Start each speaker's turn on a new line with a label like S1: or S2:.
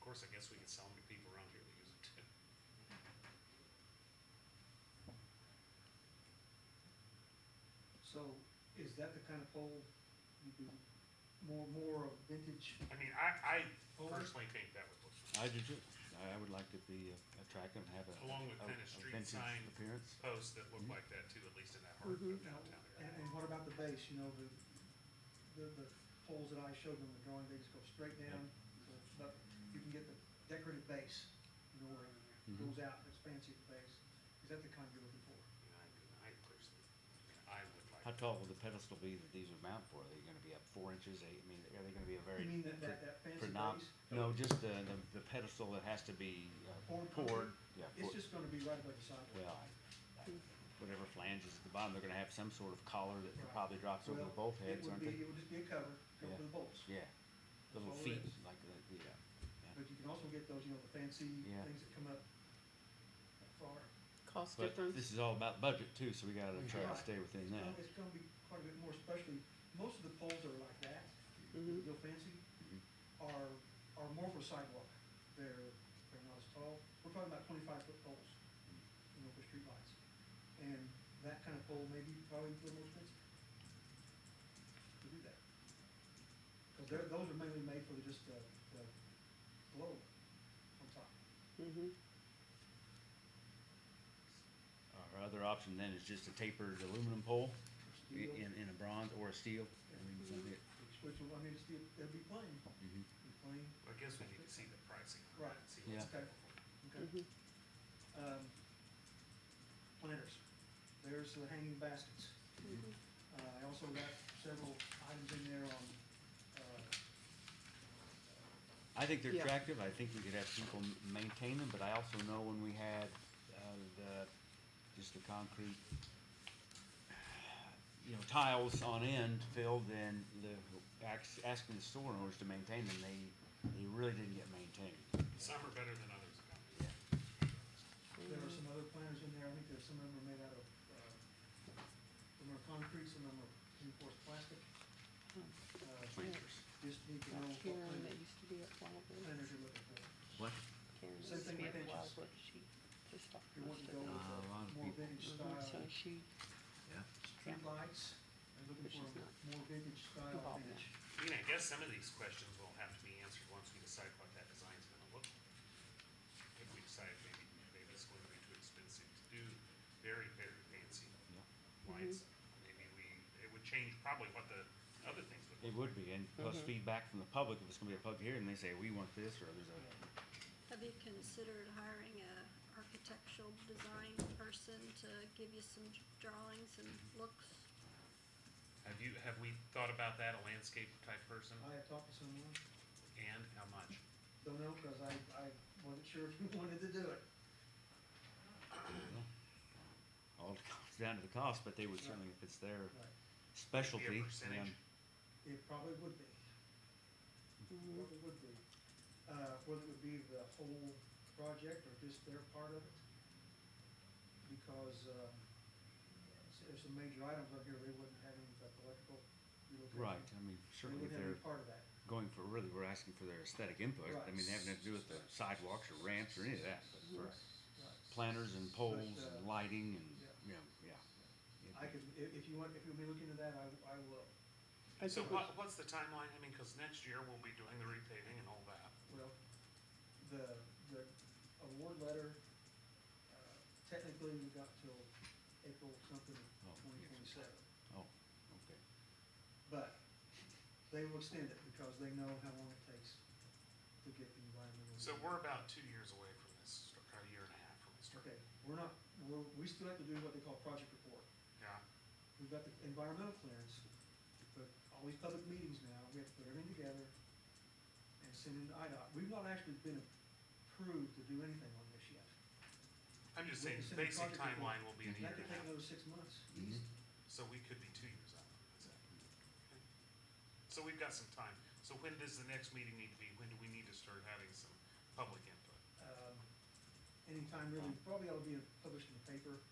S1: course, I guess we can sell them to people around here that use it too.
S2: So is that the kind of pole you do more, more of vintage?
S1: I mean, I, I
S2: Oh.
S1: personally think that would look
S3: I do too. I would like to be attractive and have a.
S1: Along with
S3: a-
S1: kind of
S3: a
S1: street
S3: vintage
S1: sign
S3: Appearance.
S1: posts that look like that too, at least in that heart of
S2: You know,
S1: downtown
S2: And,
S1: area.
S2: Mm-hmm. and what about the base, you know, the, the, the poles that I showed on the drawing, they just go straight down, but you can get the decorative base, you know, where it
S3: Mhm.
S2: goes out, it's fancy base. Is that the kind you're looking for?
S1: You know, I I personally, I would like.
S3: How tall will the pedestal be that these would mount for? Are they gonna be up four inches, eight, I mean, are they gonna be a very?
S2: You mean that, that, that fancy
S3: for knob-
S2: base?
S3: No, just the, the- the pedestal that has to be uh,
S2: Or-
S3: poured, yeah,
S2: It's
S3: poured.
S2: just gonna be right above the sidewalk.
S3: well, I- I- whatever flanges at the bottom, they're gonna have some sort of collar that
S2: Right.
S3: probably drops over the
S2: Well,
S3: bolt heads,
S2: It would
S3: aren't
S2: be,
S3: they?
S2: it would just be a cover, cover
S3: Yeah.
S2: for the bolts.
S3: Yeah, little
S2: all it
S3: feet,
S2: is.
S3: like, the- yeah, yeah.
S2: But you can also get those, you know, the fancy
S3: Yeah.
S2: things that come up far.
S4: Cost
S3: But
S4: difference?
S3: this is all about budget too, so we gotta try to
S2: Right.
S3: stay within that.
S2: It's gonna be quite a bit more, especially, most of the poles that are like that,
S4: Mhm.
S2: real fancy,
S3: Mhm.
S2: are, are more for sidewalk. They're, they're not as tall. We're talking about twenty-five foot poles, you know, for streetlights. And that kind of pole may be probably a little more expensive to do that. Cause they're, those are mainly made for just the, the globe on top.
S4: Mm-hmm.
S3: Our other option then is just a tapered aluminum pole i-
S2: Steel.
S3: in, in a bronze or a steel. I mean, something that-
S2: Which, will- I mean, it's, it'd be plain,
S3: mhm.
S2: it'd be plain,
S1: I guess we need to see the pricing on that,
S2: Right.
S1: see what's
S2: Yeah.
S1: available.
S2: okay?
S4: Mm-hmm.
S2: Um, planters, there's the hanging baskets.
S4: Mm-hmm.
S2: Uh, I also got several items in there on, uh,
S3: I think they're
S4: Yeah.
S3: attractive. I think we could have people m- maintain them, but I also know when we had, uh, the, just the concrete, you know, tiles on end filled and the, ax- asking the store owners to maintain them, they, they really didn't get maintained.
S1: Some are better than others.
S3: Yeah.
S2: there
S4: Mm-hmm.
S2: are some other planters in there, I think there's some of them are made out of, uh, some are concrete, some of them are reinforced plastic. Uh,
S3: Planters.
S2: Just need to know what
S4: Mm-hmm. Karen that
S2: planter-
S4: used to be at Wildwood.
S2: planters you're looking for.
S3: What?
S4: Karen that
S2: Same
S4: used to
S2: thing
S4: be
S2: with
S4: at
S2: benches.
S4: Wildwood. She just stopped.
S2: If you want to go
S3: Ah, a lot
S2: with
S3: of
S2: a more
S3: people.
S2: vintage
S4: Mhm,
S2: style,
S4: So she,
S3: Yeah.
S2: street lights, I'm looking
S4: Which
S2: for
S4: is not
S2: a more vintage style
S4: involved in
S2: finish.
S1: I mean, I guess some of these questions will have to be answered once we decide what that design's gonna look like. If we decide maybe, maybe it's going to be too expensive to do very, very fancy
S3: Yeah.
S1: lights,
S4: Mm-hmm.
S1: maybe we, it would change probably what the other things would look
S3: It would be, and plus feedback from the public, if it's gonna be a public hearing, and they say, we want this, or there's a
S5: Have you considered hiring a architectural design person to give you some drawings and looks?
S1: Have you, have we thought about that, a landscape type person,
S2: I have talked to someone,
S1: and how much?
S2: don't know, cause I, I wasn't sure if you wanted to do it.
S3: all it comes down to the cost, but they would certainly, if it's their
S2: Right.
S3: specialty.
S1: Be a
S3: then-
S1: percentage.
S2: It probably would be.
S4: mm-hmm.
S2: Probably would be. Uh, whether it would be the whole project or just their part of it. Because, um, s- there's some major items up here, they wouldn't have any but electrical relocation.
S3: Right, I mean,
S2: They
S3: certainly
S2: wouldn't
S3: if
S2: have
S3: they're
S2: any part of that.
S3: going for, really, we're asking for their aesthetic input, I
S2: Right.
S3: mean, they have nothing to do with the sidewalks or ramps or any of that, but for
S2: Right.
S3: planters and poles
S2: But, uh,
S3: and lighting and,
S2: yeah.
S3: you know, yeah.
S2: I could, if, if you want, if you'll be looking into that, I, I will.
S4: I
S1: So
S4: think we-
S1: what, what's the timeline, I mean, cause next year we'll be doing the repaving and all that.
S2: Well, the, the award letter, uh, technically we got till April something,
S3: Oh,
S2: twenty
S3: yes.
S2: twenty-seven.
S3: Oh, okay.
S2: But they will extend it because they know how long it takes to get the environmental.
S1: So we're about two years away from this, or a year and a half from this.
S2: Okay, we're not, we're, we still have to do what they call project report.
S1: Yeah,
S2: We've got the environmental clearance, but all these public meetings now, we have to put everything together and send it to IDOT. We've not actually been approved to do anything on this yet.
S1: I'm just
S2: We
S1: saying,
S2: can send a
S1: basic
S2: project report.
S1: timeline will be in a year and
S2: That could
S1: a
S2: take
S1: half,
S2: another six months.
S3: Mhm.
S2: easy.
S1: so we could be two years out. That's it. Okay. So we've got some time, so when does the next meeting need to be, when do we need to start having some public input?
S2: Um, Anytime really, probably ought to be published in the paper